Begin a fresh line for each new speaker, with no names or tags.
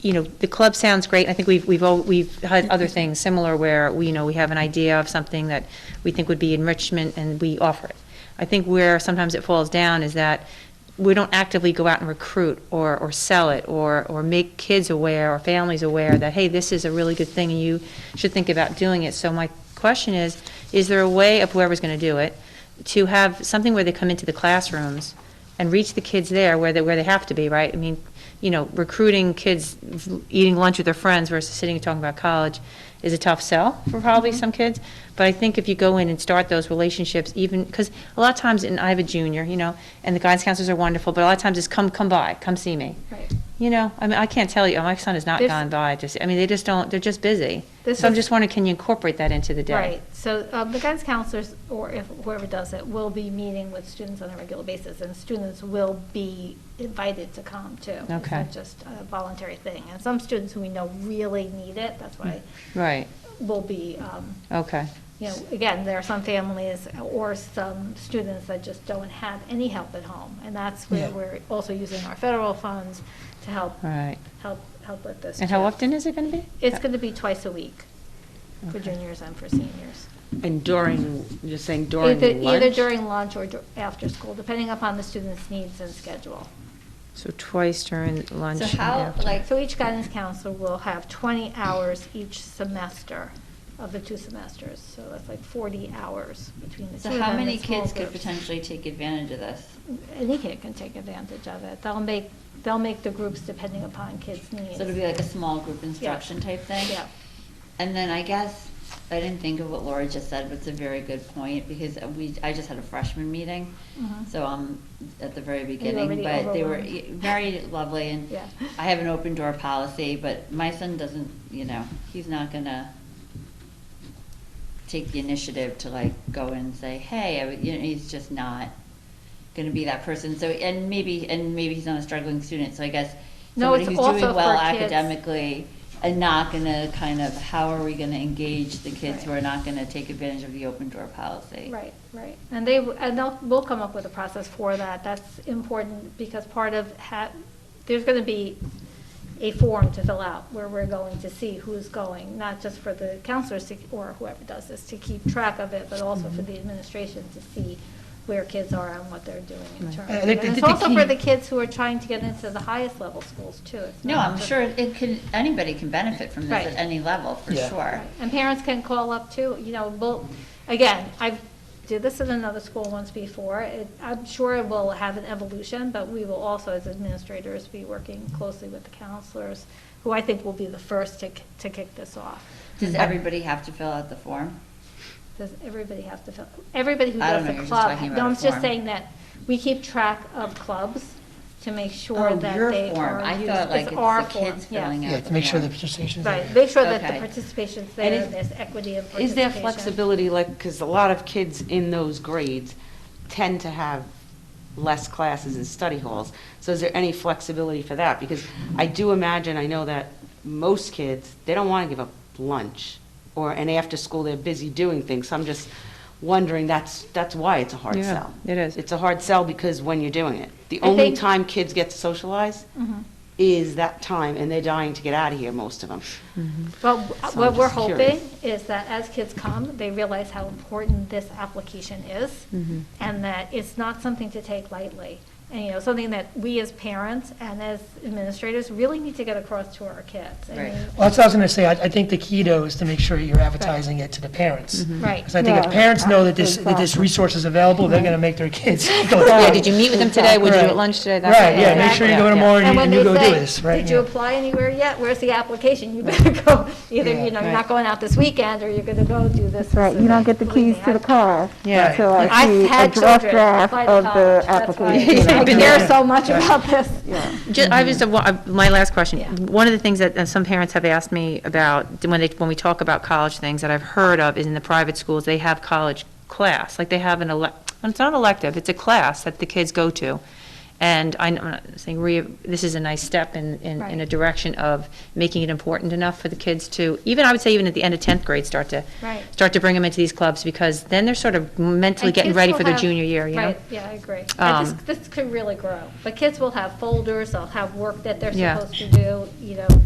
you know, the club sounds great. I think we've, we've, al- we've had other things similar where, we, you know, we have an idea of something that we think would be enrichment and we offer it. I think where sometimes it falls down is that we don't actively go out and recruit or, or sell it or, or make kids aware or families aware that, hey, this is a really good thing and you should think about doing it. So my question is, is there a way of whoever's going to do it to have something where they come into the classrooms and reach the kids there where they, where they have to be, right? I mean, you know, recruiting kids, eating lunch with their friends versus sitting and talking about college is a tough sell for probably some kids. But I think if you go in and start those relationships, even, because a lot of times, and I have a junior, you know, and the guidance counselors are wonderful, but a lot of times it's come, come by, come see me.
Right.
You know, I mean, I can't tell you, oh, my son has not
This-
gone by, just, I mean, they just don't, they're just busy.
This
So I'm
is-
just wondering, can you incorporate that into the day?
Right, so um, the guidance counselors, or if whoever does it, will be meeting with students on a regular basis, and students will be invited to come too. It's
Okay.
not just a voluntary thing, and some students who we know really need it, that's why
Right,
will be, um,
okay,
you know, again, there are some families or some students that just don't have any help at home, and that's where
Yeah.
we're also using our federal funds to help,
all right.
help, help with this.
And how
too.
often is it going to be?
It's going to be twice a week for
Okay.
juniors and for seniors.
And during, you're saying during
Either,
lunch?
either during lunch or dur- after school, depending upon the student's needs and schedule.
So twice during lunch.
So
and
how,
after.
like,
So each guidance counselor will have 20 hours each semester of the two semesters, so that's like 40 hours between the two.
so
of
how
them in
many
small
kids could
groups.
potentially take advantage of this?
Any kid can take advantage of it. They'll make, they'll make the groups depending upon kids' needs.
So it'll be like a small group instruction type thing?
Yeah.
And then I guess, I didn't think of what Laura just said, but it's a very good point, because we, I just had a freshman meeting,
Mhm.
so I'm at the very beginning,
already
but they were
overwhelmed.
y- very lovely, and
Yeah.
I have an open door policy, but my son doesn't, you know, he's not gonna take the initiative to like go and say, hey, I would- you know, he's just not gonna be that person, so, and maybe, and maybe he's not a struggling student, so I guess
No,
somebody
it's
who's
also
doing well
for kids.
academically and not gonna kind of, how are we gonna engage the kids who
Right.
are not gonna take advantage of the open door policy?
Right, right. And they, w- and they'll, we'll come up with a process for that. That's important because part of, ha- there's going to be a form to fill out where we're going to see who's going, not just for the counselors to- or whoever does this to keep track of it, but also
Mm-hmm.
for the administration to see where kids are and what they're doing in terms.
I
of
think
it. And
the-
it's
the
also for
key-
the kids who are trying to get into the highest level schools too. It's
No,
not
I'm
just-
sure it can, anybody can benefit from this
Right.
at any level, for
Yeah.
sure.
Right, And parents can call up too, you know, we'll, again, I did this in another school once before. It- I'm sure it will have an evolution, but we will also, as administrators, be working closely with the counselors, who I think will be the first to, k- to kick this off.
Does everybody have to fill out the form?
Does everybody have to, fill- everybody who
I don't
does
know,
a
you're just
club,
talking about
no,
a
I'm just
form.
saying that we keep track of clubs to make sure
Oh,
that
your
they
form.
are
I
used.
thought like it's
our
the
form,
kids
yes.
filling out.
Yeah, to make sure the
form.
participation is.
Right, make sure that
Okay.
the participation's
And
there,
is-
and there's equity and
Is
participation.
there flexibility, like, because a lot of kids in those grades tend to have less classes and study halls. So is there any flexibility for that? Because I do imagine, I know that most kids, they don't want to give up lunch or, and after school, they're busy doing things. So I'm just wondering, that's, that's why it's a hard
Yeah,
sell.
it is.
It's a hard sell because when you're doing it. The
I
only
think- Mm-hmm.
time kids get to socialize is that time, and they're dying to get out of here, most of them.
Well,
So
what
I'm
we're
just curious.
hoping is that as kids come, they realize how important this application is,
Mm-hmm.
and that it's not something to take lightly. And, you know, something that we as parents and as administrators really need to get across to our kids. I
Right.
mean,
Well, that's what I was going to say. I, I think the key though is to make sure you're advertising it to the parents.
Mm-hmm.
Right.
Because I think if parents know that this, that this resource is available, they're going to make their kids go down.
Yeah, did you meet with them today? Would you do
Right.
at lunch today? That
Right,
kind of
yeah,
thing.
make sure you go
Yeah.
tomorrow
And
and you-
when
and you
they
go do
say,
this, right?
Did you
yeah.
apply anywhere yet? Where's the application? You better go, either,
Yeah.
you know,
Right.
you're not going out this weekend, or you're gonna go do this.
Right, you don't get the keys to the car
Yeah.
until I
I've
see a
had
draft
children
draft
apply to
of the
college. That's why
application.
Yeah.
I care so much about this.
Ju- I was, uh, my last question.
Yeah.
One of the things that uh, some parents have asked me about, when they, when we talk about college things that I've heard of, is in the private schools, they have college class, like they have an elec, it's not an elective, it's a class that the kids go to. And I- I'm not saying, re- this is a nice step in, in, in a
Right.
direction of making it important enough for the kids to, even, I would say even at the end of 10th grade, start to,
Right.
start to bring them into these clubs, because then they're sort of mentally
And
getting
kids
ready
will
for their
have-
junior year, you know?
Right, yeah, I agree. I
Um,
just- This could really grow. But kids will have folders, they'll have work that they're
Yeah.
supposed to do, you know,